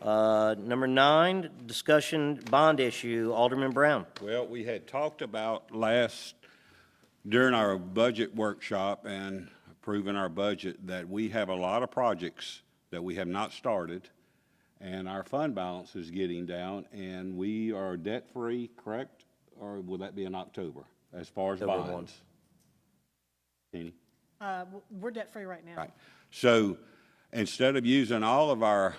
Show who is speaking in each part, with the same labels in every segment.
Speaker 1: Uh, Number nine, discussion bond issue, Alderman Brown.
Speaker 2: Well, we had talked about last, during our budget workshop and approving our budget, that we have a lot of projects that we have not started, and our fund balance is getting down, and we are debt-free, correct? Or will that be in October, as far as
Speaker 1: October one.
Speaker 2: bonds? Kenny?
Speaker 3: Uh, w- We're debt-free right now.
Speaker 2: Right. So instead of using all of our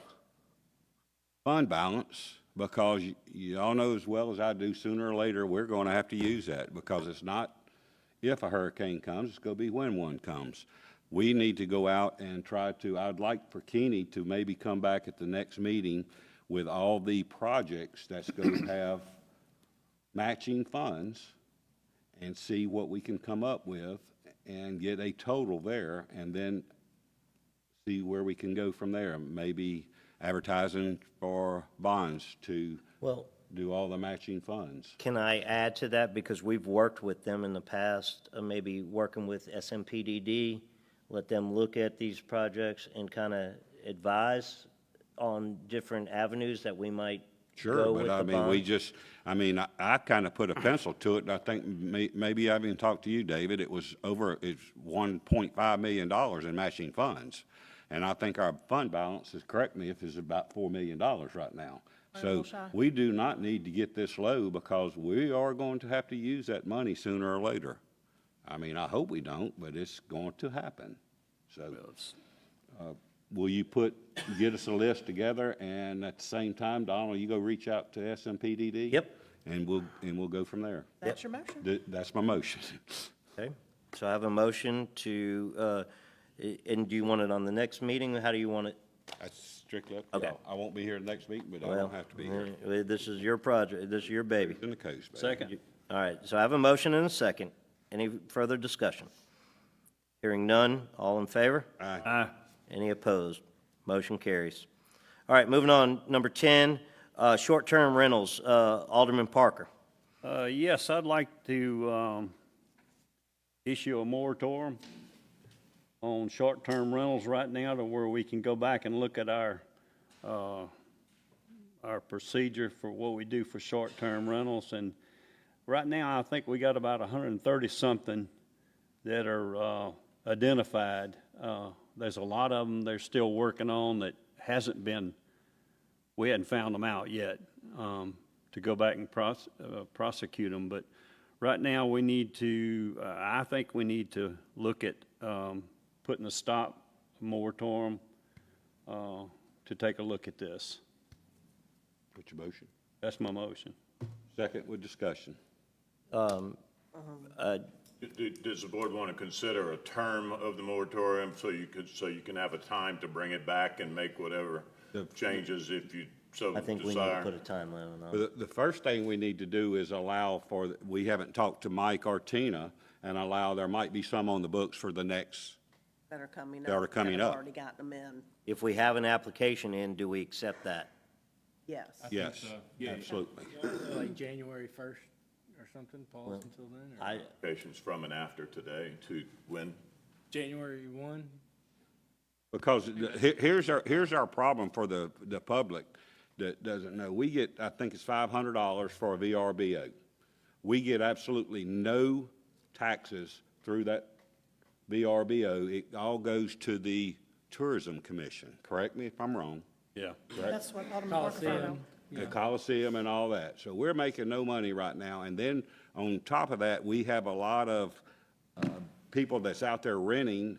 Speaker 2: fund balance, because y- you all know as well as I do, sooner or later, we're going to have to use that because it's not if a hurricane comes, it's going to be when one comes. We need to go out and try to, I'd like for Kenny to maybe come back at the next meeting with all the projects that's going to have matching funds and see what we can come up with and get a total there and then see where we can go from there. Maybe advertising for bonds to
Speaker 1: Well,
Speaker 2: do all the matching funds.
Speaker 1: Can I add to that? Because we've worked with them in the past, uh, maybe working with SMPDD, let them look at these projects and kind of advise on different avenues that we might
Speaker 2: Sure,
Speaker 1: go with
Speaker 2: but I
Speaker 1: the
Speaker 2: mean, we
Speaker 1: bond.
Speaker 2: just, I mean, I, I kind of put a pencil to it, and I think may, maybe I even talked to you, David, it was over, it's one point five million dollars in matching funds. And I think our fund balance is, correct me if it's about four million dollars right now. So
Speaker 3: little shy.
Speaker 2: we do not need to get this low because we are going to have to use that money sooner or later. I mean, I hope we don't, but it's going to happen. So, uh, will you put, get us a list together, and at the same time, Donald, you go reach out to SMPDD?
Speaker 1: Yep.
Speaker 2: And we'll, and we'll go from there.
Speaker 3: That's your motion.
Speaker 2: Th- That's my motion.
Speaker 1: Okay, so I have a motion to, uh, i- and do you want it on the next meeting? How do you want it?
Speaker 2: That's strictly up
Speaker 1: Okay. y'all.
Speaker 2: I won't be here next meeting, but I
Speaker 1: Well,
Speaker 2: won't have to be here.
Speaker 1: uh, This is your project, this is your baby.
Speaker 2: In the coast, baby.
Speaker 1: All right, so I have a motion and a second. Any further discussion? Hearing none, all in favor?
Speaker 2: Aye.
Speaker 1: Any opposed? Motion carries. All right, moving on, number 10, uh, short-term rentals, uh, Alderman Parker.
Speaker 4: Uh, Yes, I'd like to um, issue a moratorium on short-term rentals right now to where we can go back and look at our, uh, our procedure for what we do for short-term rentals. And right now, I think we got about 130-something that are uh, identified. Uh, There's a lot of them they're still working on that hasn't been we hadn't found them out yet um, to go back and pros- uh, prosecute them. But right now, we need to, uh, I think we need to look at um, putting a stop moratorium uh, to take a look at this.
Speaker 2: Put your motion.
Speaker 4: That's my motion.
Speaker 2: Second with discussion.
Speaker 5: D- d- Does the board want to consider a term of the moratorium so you could, so you can have a time to bring it back and make whatever changes if you so
Speaker 1: I think we need to put a
Speaker 5: desire?
Speaker 1: time limit on it.
Speaker 2: The, the first thing we need to do is allow for, we haven't talked to Mike or Tina, and allow, there might be some on the books for the next,
Speaker 6: that are coming up.
Speaker 2: That are coming
Speaker 6: have
Speaker 2: up.
Speaker 6: Already gotten them in,
Speaker 1: If we have an application in, do we accept that?
Speaker 6: yes.
Speaker 2: yes, absolutely.
Speaker 7: Like January first or something, pause until then, or
Speaker 1: I,
Speaker 5: Patients from and after today to when?
Speaker 7: January one?
Speaker 2: Because the- he- here's our, here's our problem for the, the public that doesn't know. We get, I think it's five hundred dollars for a VRBO. We get absolutely no taxes through that VRBO. It all goes to the Tourism Commission. Correct me if I'm wrong.
Speaker 4: Yeah.
Speaker 3: That's what Alderman Parker found out.
Speaker 2: The Coliseum and all that. So we're making no money right now. And then on top of that, we have a lot of uh, people that's out there renting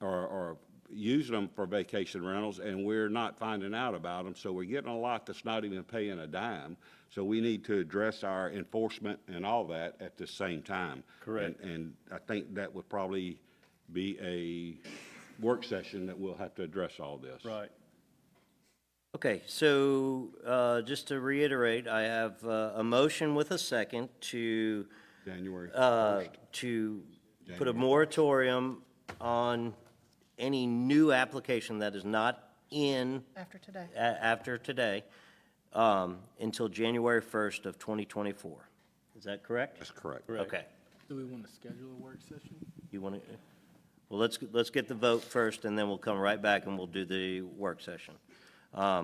Speaker 2: or, or using them for vacation rentals, and we're not finding out about them. So we're getting a lot that's not even paying a dime. So we need to address our enforcement and all that at the same time.
Speaker 4: Correct.
Speaker 2: And, and I think that would probably be a work session that we'll have to address all this.
Speaker 4: Right.
Speaker 1: okay, so, uh, just to reiterate, I have, uh, a motion with a second to,
Speaker 2: January
Speaker 1: uh, to put a moratorium on any new application that is not in
Speaker 3: After today.
Speaker 1: a- after today, um, until January 1st of 2024. Is that correct?
Speaker 2: That's correct.
Speaker 1: Okay.
Speaker 7: Do we want to schedule a work session?
Speaker 1: You want to, well, let's, let's get the vote first, and then we'll come right back and we'll do the work session. Um,